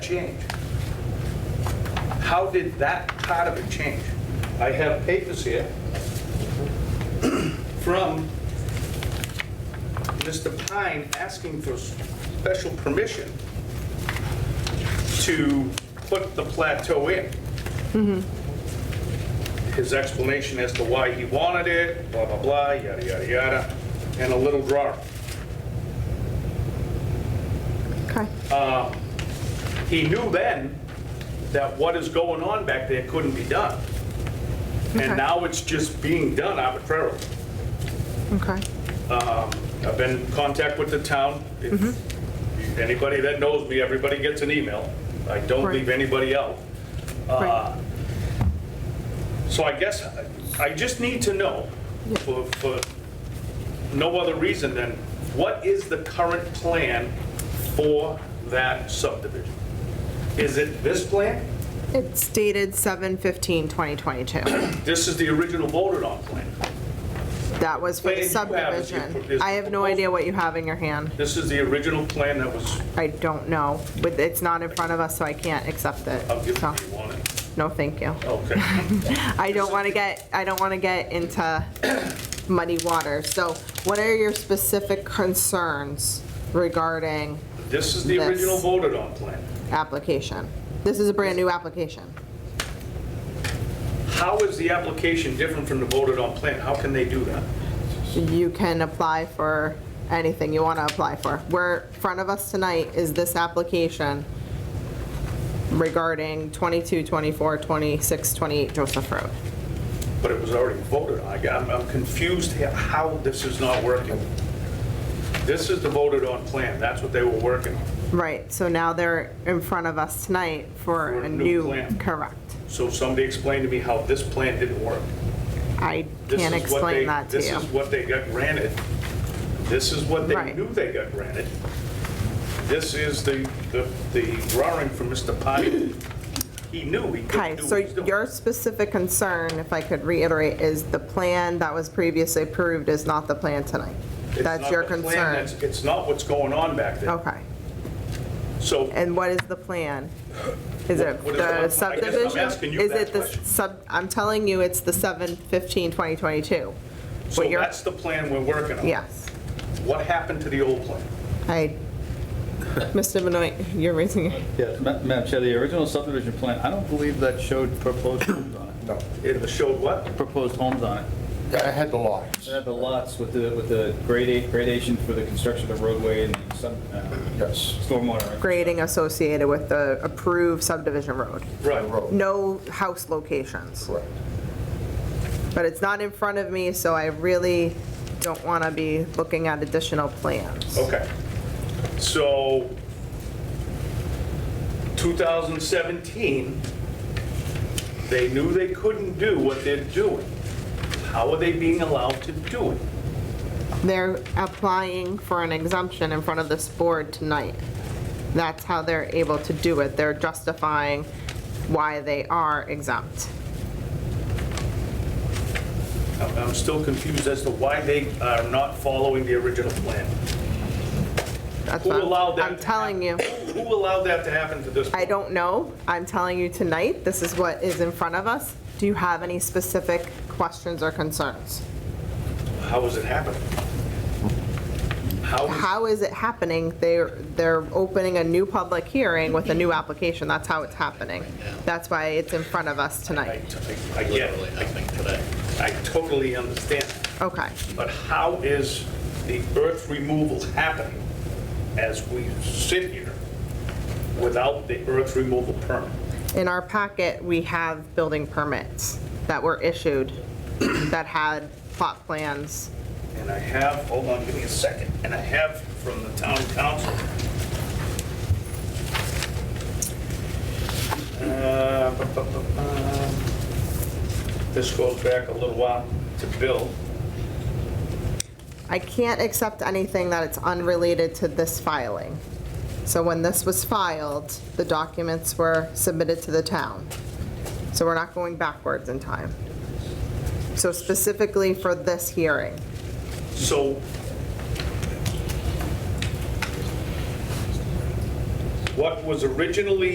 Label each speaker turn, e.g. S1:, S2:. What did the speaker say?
S1: change? How did that part of it change? I have papers here from Mr. Pine asking for special permission to put the plateau in. His explanation as to why he wanted it, blah, blah, blah, yada, yada, yada, and a little drawing.
S2: Okay.
S1: He knew then that what is going on back there couldn't be done.
S2: Okay.
S1: And now it's just being done arbitrarily.
S2: Okay.
S1: I've been in contact with the town. If Anybody that knows me, everybody gets an email. I don't
S2: Mm-hmm. Right.
S1: leave anybody out. Uh,
S2: Right.
S1: So I guess, I- I just need to know, for, for no other reason than, what is the current plan for that subdivision? Is it this plan?
S2: It's dated 7/15/2022.
S1: This is the original voted on plan.
S2: That was for the
S1: Wait, you have it, you put
S2: subdivision.
S1: this-
S2: I have no idea what you have in your hand.
S1: This is the original plan that was,
S2: I don't know, but it's not in front of us, so I can't accept it.
S1: I'll give it
S2: So,
S1: to you on it.
S2: no, thank you.
S1: Okay.
S2: I don't want to get, I don't want to get into muddy water. So what are your specific concerns regarding
S1: This is the
S2: This.
S1: original voted on plan.
S2: application? This is a brand-new application.
S1: How is the application different from the voted on plan? How can they do that?
S2: you can apply for anything you want to apply for. Where, in front of us tonight is this application regarding 22, 24, 26, 28 Joseph Road.
S1: But it was already voted on. I got- I'm I'm confused here how this is not working. This is the voted on plan. That's what they were working on.
S2: Right, so now they're in front of us tonight for a new,
S1: plan.
S2: correct.
S1: So somebody explain to me how this plan didn't work.
S2: I
S1: This
S2: can't
S1: is what they-
S2: explain that to
S1: This
S2: you.
S1: is what they got granted. This is what they
S2: Right.
S1: knew they got granted. This is the, the- the drawing from Mr. Pine. He knew he
S2: Okay,
S1: couldn't do
S2: so
S1: what he's doing.
S2: your specific concern, if I could reiterate, is the plan that was previously approved is not the plan tonight.
S1: It's
S2: That's
S1: not
S2: your
S1: the plan,
S2: concern.
S1: that's- It's not what's going on back there.
S2: Okay.
S1: So
S2: And what is the plan? Is it
S1: What- what is the plan? I
S2: the
S1: guess I'm
S2: subdivision?
S1: asking you
S2: Is
S1: that
S2: it the
S1: question.
S2: sub, I'm telling you, it's the 7/15/2022.
S1: So
S2: What you're-
S1: that's the plan we're working on?
S2: Yes.
S1: What happened to the old plan?
S2: I, Mr. Benoit, you're raising it.
S3: Yeah, Ma- Madam Chair, the original subdivision plan, I don't believe that showed proposed homes on it.
S4: No,
S1: It showed what?
S3: Proposed homes on it.
S4: I had the lots.
S3: It had the lots with the, with the grade- gradation for the construction of roadway and some uh,
S4: Yes,
S3: stormwater.
S2: Grading associated with the approved subdivision road.
S4: the
S1: Right.
S4: road,
S2: No house locations.
S4: correct.
S2: But it's not in front of me, so I really don't want to be looking at additional plans.
S1: Okay. So 2017, they knew they couldn't do what they're doing. How are they being allowed to do it?
S2: They're applying for an exemption in front of this board tonight. That's how they're able to do it. They're justifying why they are exempt.
S1: I'm I'm still confused as to why they are not following the original plan.
S2: That's
S1: Who
S2: what I'm-
S1: allowed that
S2: I'm
S1: to
S2: telling you,
S1: Who allowed that to happen to this?
S2: I don't know. I'm telling you tonight, this is what is in front of us. Do you have any specific questions or concerns?
S1: How is it happening? How is
S2: How is it happening? They're, they're opening a new public hearing with a new application. That's how it's happening. That's why it's in front of us
S1: I,
S2: tonight.
S1: I- I get it. I think today. I totally understand,
S2: Okay.
S1: but how is the earth removal happening as we sit here without the earth removal permit?
S2: In our packet, we have building permits that were issued that had plot plans.
S1: And I have, hold on, give me a second, and I have from the town council. Uh, bu- bu- bu- bu- This goes back a little while to Bill.
S2: I can't accept anything that it's unrelated to this filing. So when this was filed, the documents were submitted to the town. So we're not going backwards in time. So specifically for this hearing,
S1: So what was originally